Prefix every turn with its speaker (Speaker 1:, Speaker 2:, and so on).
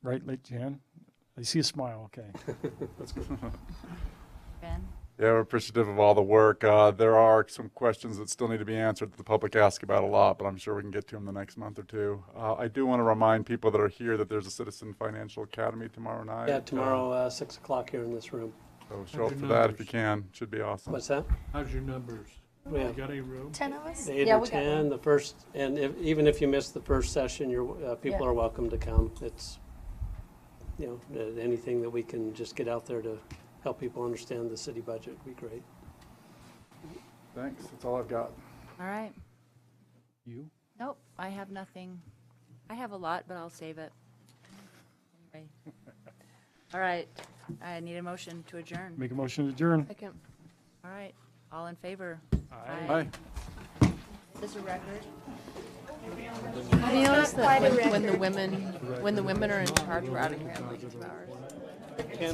Speaker 1: Right, late Jan? I see a smile, okay.
Speaker 2: Ben?
Speaker 3: Yeah, we're appreciative of all the work. Uh, There are some questions that still need to be answered that the public ask about a lot, but I'm sure we can get to them the next month or two. Uh, I do want to remind people that are here that there's a Citizen Financial Academy tomorrow night.
Speaker 4: Yeah, tomorrow, uh, 6 o'clock here in this room.
Speaker 3: So show up for that if you can. Should be awesome.
Speaker 4: What's that?
Speaker 5: How's your numbers?
Speaker 4: We
Speaker 5: You
Speaker 4: have
Speaker 5: got any room?
Speaker 2: Ten of us?
Speaker 4: Eight
Speaker 2: Yeah,
Speaker 4: or
Speaker 2: we got
Speaker 4: 10, the first, and if, even if you miss the first session, you're, uh, people
Speaker 2: Yeah.
Speaker 4: are welcome to come. It's, you know, uh, anything that we can just get out there to help people understand the city budget would be great.
Speaker 3: Thanks. That's all I've got.
Speaker 2: All right.
Speaker 1: You?
Speaker 2: Nope, I have nothing. I have a lot, but I'll save it. Anyway. All right, I need a motion to adjourn.
Speaker 1: Make a motion to adjourn.
Speaker 2: Second. All right, all in favor?
Speaker 3: Bye.
Speaker 2: This a record?
Speaker 6: Do you notice that when, when the women, when the women are in charge, we're out of here in like two hours?